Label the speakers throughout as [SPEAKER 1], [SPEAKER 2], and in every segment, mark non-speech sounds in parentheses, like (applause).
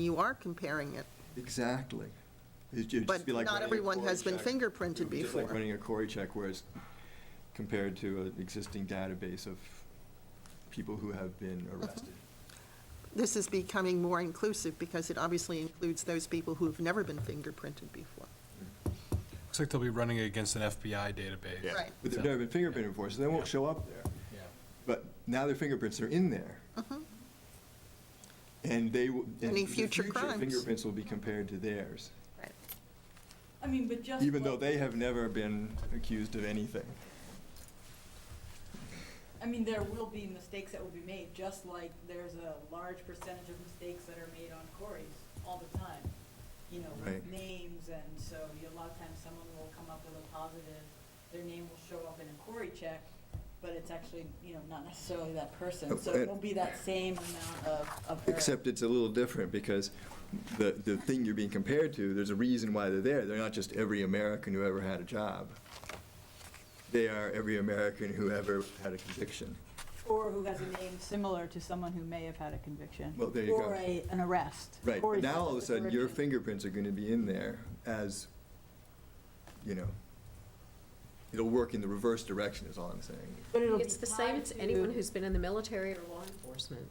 [SPEAKER 1] you are comparing it,
[SPEAKER 2] Exactly. It'd ju- just
[SPEAKER 1] but
[SPEAKER 2] be like
[SPEAKER 1] not
[SPEAKER 2] running a
[SPEAKER 1] everyone has
[SPEAKER 2] Corey
[SPEAKER 1] been
[SPEAKER 2] check.
[SPEAKER 1] fingerprinted
[SPEAKER 2] It'd be just like
[SPEAKER 1] before.
[SPEAKER 2] running a Corey check, whereas compared to an existing database of people who have
[SPEAKER 1] (laughs)
[SPEAKER 2] been arrested.
[SPEAKER 1] This is becoming more inclusive because it obviously includes those people who've never been fingerprinted before.
[SPEAKER 3] Looks like they'll be running against an FBI database.
[SPEAKER 1] Yeah. Right.
[SPEAKER 2] But they've never been fingerprinted before, so they won't show up there.
[SPEAKER 3] Yeah.
[SPEAKER 2] But now their fingerprints are in there. And they, will- and
[SPEAKER 1] Mm-hmm. Any
[SPEAKER 2] in the
[SPEAKER 1] future
[SPEAKER 2] future,
[SPEAKER 1] crimes.
[SPEAKER 2] fingerprints will be compared to theirs,
[SPEAKER 4] I mean, but just.
[SPEAKER 2] even though
[SPEAKER 4] like-
[SPEAKER 2] they have never been accused of anything.
[SPEAKER 4] I mean, there will be mistakes that will be made, just like there's a large percentage of mistakes that are made on quarries all the time. You know, with
[SPEAKER 2] Right.
[SPEAKER 4] names and so you, a lot of times someone will come up with a positive, their name will show up in a quarry check, but it's actually, you know, not necessarily that
[SPEAKER 2] Oh,
[SPEAKER 4] person. So it
[SPEAKER 2] and-
[SPEAKER 4] won't be that same amount of, of error.
[SPEAKER 2] Except it's a little different because the, the thing you're being compared to, there's a reason why they're there. They're not just every American who ever had a job. They are every American who ever had a conviction.
[SPEAKER 4] Or who has a name similar to someone who may have had a conviction.
[SPEAKER 2] Well, there you go.
[SPEAKER 4] Or a, an arrest.
[SPEAKER 2] Right,
[SPEAKER 4] Or
[SPEAKER 2] but now all of a sudden, your
[SPEAKER 4] correction.
[SPEAKER 2] fingerprints are gonna be in there as, you know, it'll work in the reverse direction is all I'm saying.
[SPEAKER 4] But it'll be
[SPEAKER 5] It's the same,
[SPEAKER 4] tied
[SPEAKER 5] it's
[SPEAKER 4] to-
[SPEAKER 5] anyone who's been in the military or law enforcement.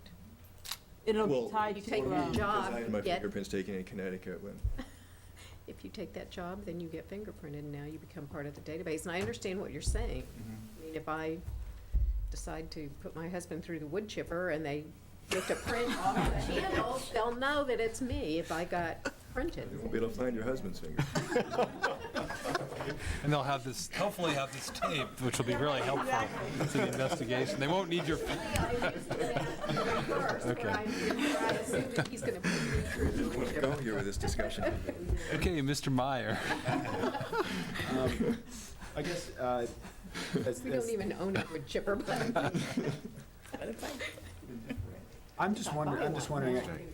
[SPEAKER 4] It'll
[SPEAKER 2] Well,
[SPEAKER 4] be tied
[SPEAKER 5] You
[SPEAKER 4] to.
[SPEAKER 5] take
[SPEAKER 2] for
[SPEAKER 5] your
[SPEAKER 4] um,
[SPEAKER 2] me, Because
[SPEAKER 5] job,
[SPEAKER 2] I had my
[SPEAKER 5] get-
[SPEAKER 2] fingerprints taken in Connecticut
[SPEAKER 4] (laughs)
[SPEAKER 2] when,
[SPEAKER 5] If you take that job, then you get fingerprinted, and now you become part of the database. And I understand what you're saying. I mean, if I decide to put my husband through the wood chipper and they get a print
[SPEAKER 4] (laughs)
[SPEAKER 5] on the channel, they'll know that it's me if I got
[SPEAKER 2] (laughs)
[SPEAKER 5] printed. (laughs)
[SPEAKER 2] you won't be able to find your husband's finger.
[SPEAKER 4] (laughs)
[SPEAKER 3] And they'll have this, hopefully have this tape, which will be really helpful to the investigation. They won't need your, (laughs)
[SPEAKER 5] I used to that in reverse, where I- where I assume that he's gonna put me through the wood
[SPEAKER 2] We're
[SPEAKER 5] chipper.
[SPEAKER 2] going here with this discussion.
[SPEAKER 3] okay, Mr. Meyer.
[SPEAKER 6] Um, I guess, uh, as-
[SPEAKER 5] We don't
[SPEAKER 6] as-
[SPEAKER 5] even own a wood
[SPEAKER 2] (laughs)
[SPEAKER 5] chipper, (laughs) but.
[SPEAKER 6] I'm just wondering, I'm just wondering,
[SPEAKER 5] Right.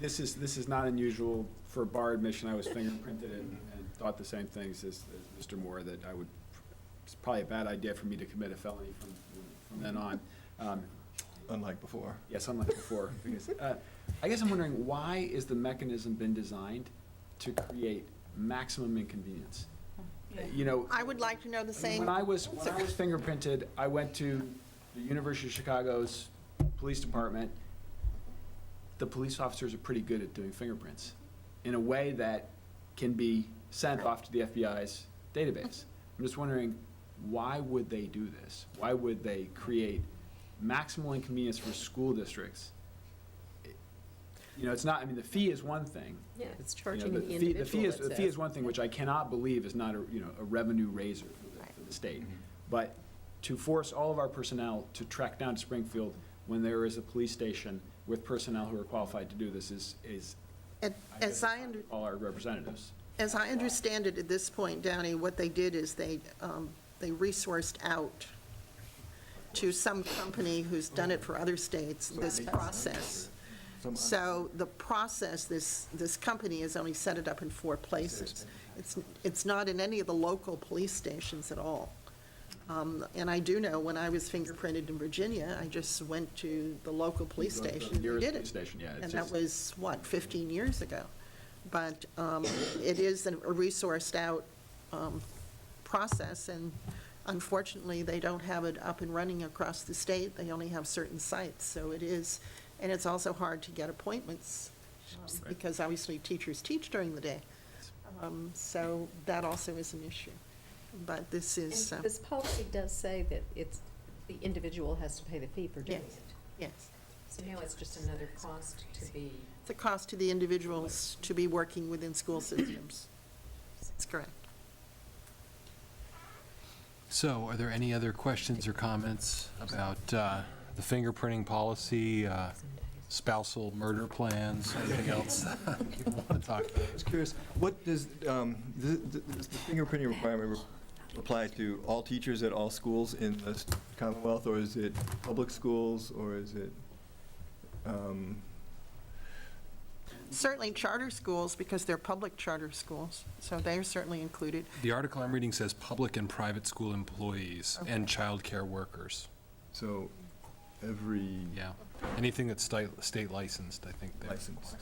[SPEAKER 6] this is, this is not unusual for a bar admission. I was fingerprinted and and thought the same things as as Mr. Moore, that I would, it's probably a bad idea for me to commit a felony from from then on. Um,
[SPEAKER 2] Unlike before.
[SPEAKER 6] Yes, unlike before. because, uh, I guess I'm wondering, why is the mechanism been designed to create maximum inconvenience?
[SPEAKER 4] yeah.
[SPEAKER 6] You know.
[SPEAKER 1] I would like to know the same,
[SPEAKER 6] When I was, when I was fingerprinted, I went to the University of Chicago's Police Department. The police officers are pretty good at doing fingerprints in a way that can be sent off to the FBI's database. I'm just wondering, why would they do this? Why would they create maximal inconvenience for school districts? You know, it's not, I mean, the fee is one thing,
[SPEAKER 5] Yeah, it's
[SPEAKER 6] you know,
[SPEAKER 5] charging the
[SPEAKER 6] the fee-
[SPEAKER 5] individual.
[SPEAKER 6] the fee is,
[SPEAKER 5] it
[SPEAKER 6] the fee
[SPEAKER 5] says.
[SPEAKER 6] is one thing, which I cannot believe is not a, you know, a revenue raiser for the- for the state.
[SPEAKER 5] Mm-hmm.
[SPEAKER 6] But to force all of our personnel to track down to Springfield when there is a police station with personnel who are qualified to do this is, is,
[SPEAKER 1] And
[SPEAKER 6] I guess,
[SPEAKER 1] as I, under-
[SPEAKER 6] all our representatives.
[SPEAKER 1] as I understand it at this point, Downey, what they did is they, um, they resourced out to some company who's done it for other states, this process.
[SPEAKER 2] Some-
[SPEAKER 1] So the process, this, this company has only set it up in four places. It's, it's not in any of the local police stations at all. Um, And I do know, when I was fingerprinted in Virginia, I just went to the local police
[SPEAKER 6] Go to the
[SPEAKER 1] station and
[SPEAKER 6] nearest
[SPEAKER 1] did
[SPEAKER 6] police
[SPEAKER 1] it.
[SPEAKER 6] station, yeah, it's
[SPEAKER 1] And that
[SPEAKER 6] just-
[SPEAKER 1] was, what, 15 years ago? But um, it is a resourced-out process, and unfortunately, they don't have it up and running across the state. They only have certain sites, so it is, and it's also hard to get appointments, because obviously teachers teach during the day. Um, So that also is an issue. But this is, uh,
[SPEAKER 5] And This policy does say that it's, the individual has to pay the fee for doing
[SPEAKER 1] Yes.
[SPEAKER 5] it.
[SPEAKER 1] yes,
[SPEAKER 5] So now it's just another cost to be.
[SPEAKER 1] it's a cost to the individuals to be working within school systems. That's correct.
[SPEAKER 3] So are there any other questions or comments about uh, the fingerprinting policy, uh, spousal murder plans, anything else (laughs) you want to talk about?
[SPEAKER 2] I was curious, what does, um, th- th- does the fingerprinting requirement apply to all teachers at all schools in the Commonwealth, or is it public schools, or is it, um,
[SPEAKER 1] Certainly charter schools, because they're public charter schools, so they are certainly included.
[SPEAKER 3] The article I'm reading says public and private school employees and childcare workers.
[SPEAKER 2] so every
[SPEAKER 3] Yeah, anything that's state, state licensed, I think. they're-
[SPEAKER 2] licensed?